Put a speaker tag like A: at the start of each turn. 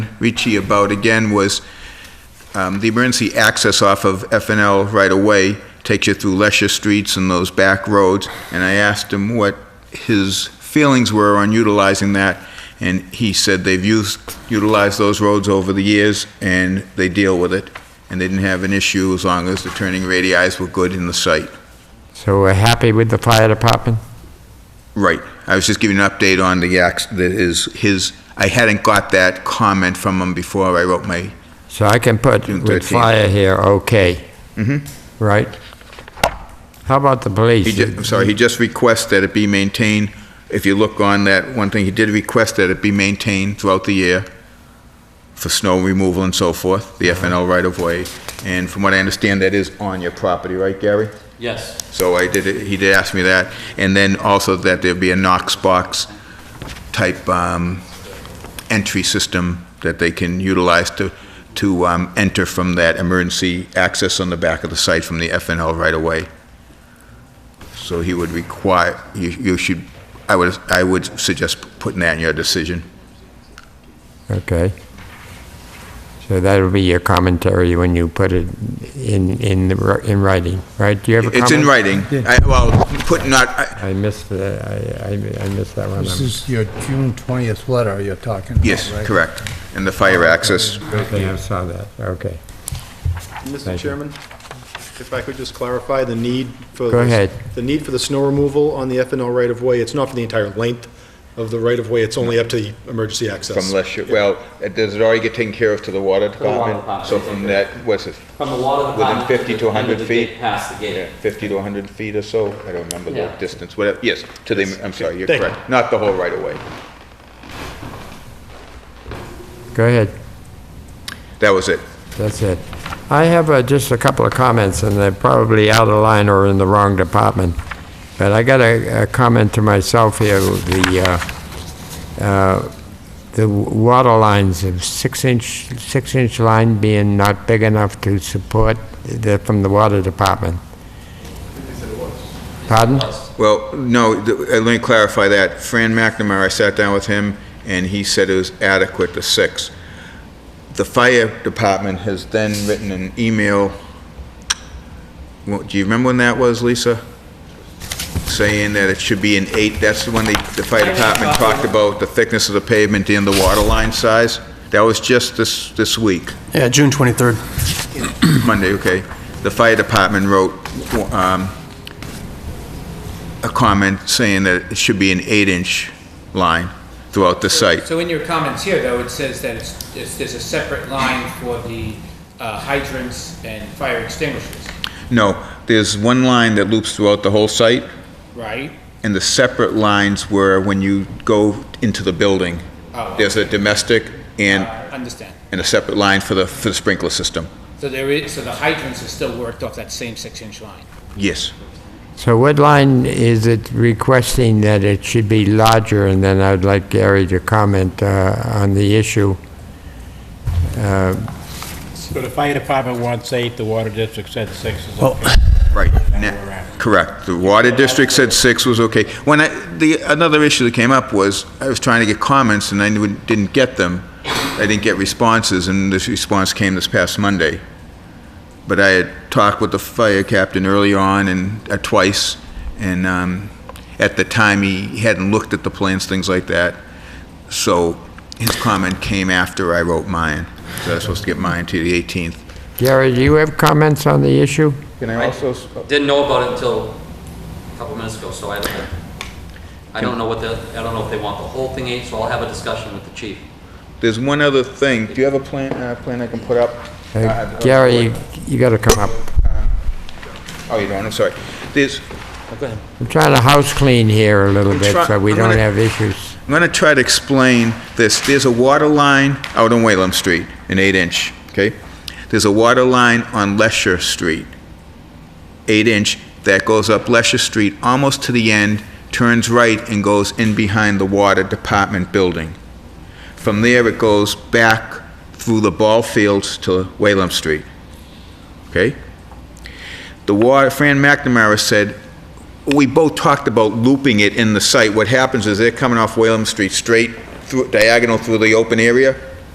A: Ricci about again was um, the emergency access off of FNL right away takes you through Lesher Streets and those back roads, and I asked him what his feelings were on utilizing that, and he said they've used, utilized those roads over the years, and they deal with it, and they didn't have an issue as long as the turning radii were good in the site.
B: So we're happy with the fire department?
A: Right. I was just giving an update on the, ax- the- his, his, I hadn't got that comment from him before I wrote my,
B: So I can put
A: June 13th.
B: with fire here, okay,
A: Mhm.
B: right? How about the
A: He
B: police?
A: ju- I'm sorry, he just requests that it be maintained. If you look on that one thing, he did request that it be maintained throughout the year for snow removal and so forth, the FNL right-of-way. And from what I understand, that is on your property, right, Gary?
C: Yes,
A: So I did, he did ask me that. And then also that there be a Knox box type um, entry system that they can utilize to, to um, enter from that emergency access on the back of the site from the FNL right away. So he would require, you, you should, I would, I would suggest putting that in your decision.
B: Okay. So that'll be your commentary when you put it in, in, the wri- in writing, right? Do you have a comment?
A: It's in writing. I, well, put not, I-
B: I missed, the- I, I I missed that one.
D: This is your June 20th letter you're talking about,
A: yes,
D: right?
A: correct. And the fire access,
B: Okay, I saw that, okay.
E: Mr.
B: Thank you.
E: Chairman, if I could just clarify the need for...
B: Go
E: the-
B: ahead.
E: The need for the snow removal on the FNL right-of-way, it's not for the entire length of the right-of-way, it's only up to the emergency access.
A: From Lesher, well, it- does it already get taken care of to the water
C: the water
A: department?
C: department,
A: So from that, what's it,
C: from the water
A: Within
C: department.
A: 50 to
C: the end of
A: 100
C: the
A: feet?
C: gate Past the gate.
A: 50 to 100 feet or so? I don't remember the
C: Yeah.
A: distance, whatever, yes, to the, I'm sorry, you're
E: Thank you.
A: correct. Not the whole right-of-way.
B: Go ahead.
A: That was it.
B: That's it. I have uh, just a couple of comments, and they're probably out of line or in the wrong department. But I got a, a comment to myself here, the, uh, uh, the water lines of six-inch, six-inch line being not big enough to support the, from the water department. Pardon?
A: Well, no, th- uh, let me clarify that. Fran McNamara, I sat down with him, and he said it was adequate to six. The fire department has then written an email, Well, do you remember when that was, Lisa? Saying that it should be an eight, that's when the, the fire department talked about the thickness of the pavement and the water line size. That was just this, this week.
F: Yeah, June 23rd.
A: Monday, okay. The fire department wrote um, a comment saying that it should be an eight-inch line throughout the site.
G: So in your comments here, though, it says that it's, it's, there's a separate line for the uh, hydrants and fire extinguishers,
A: No, there's one line that loops throughout the whole site,
G: right?
A: and the separate lines were when you go into the building.
G: Oh.
A: There's a domestic and,
G: Understand.
A: and a separate line for the, for the sprinkler system.
G: So there is, so the hydrants are still worked off that same six-inch line.
A: Yes.
B: So what line is it requesting that it should be larger? And then I'd like Gary to comment uh, on the issue.
H: So the fire department wants eight, the water district said six is okay.
A: Right. Na- Correct. The water district said six was okay. When I, the, another issue that came up was, I was trying to get comments and I knew- didn't get them. I didn't get responses, and this response came this past Monday. But I had talked with the fire captain early on and, uh, twice, and, um, at the time, he hadn't looked at the plans, things like that. So his comment came after I wrote mine. So I was supposed to get mine to the 18th.
B: Gary, do you have comments on the issue?
A: Can I
C: Right.
A: also,
C: Didn't know about it until a couple minutes ago, so I don't, I don't know what the, I don't know if they want the whole thing eight, so I'll have a discussion with the chief.
A: There's one other thing. Do you have a plan, uh, plan I can put up?
B: Uh,
A: Uh,
B: Gary, you got to come up.
A: Oh, you don't, I'm sorry. There's,
B: I'm trying to house clean here a little
A: I'm
B: bit
A: try-
B: so we
A: I'm
B: don't
A: gonna-
B: have issues.
A: I'm gonna try to explain this. There's a water line out on Wayland Street, an eight-inch, okay? There's a water line on Lesher Street, eight-inch, that goes up Lesher Street almost to the end, turns right and goes in behind the water department building. From there, it goes back through the ball fields to Wayland Street, okay? The water, Fran McNamara said, we both talked about looping it in the site. What happens is they're coming off Whalen Street straight through, diagonal through the open area,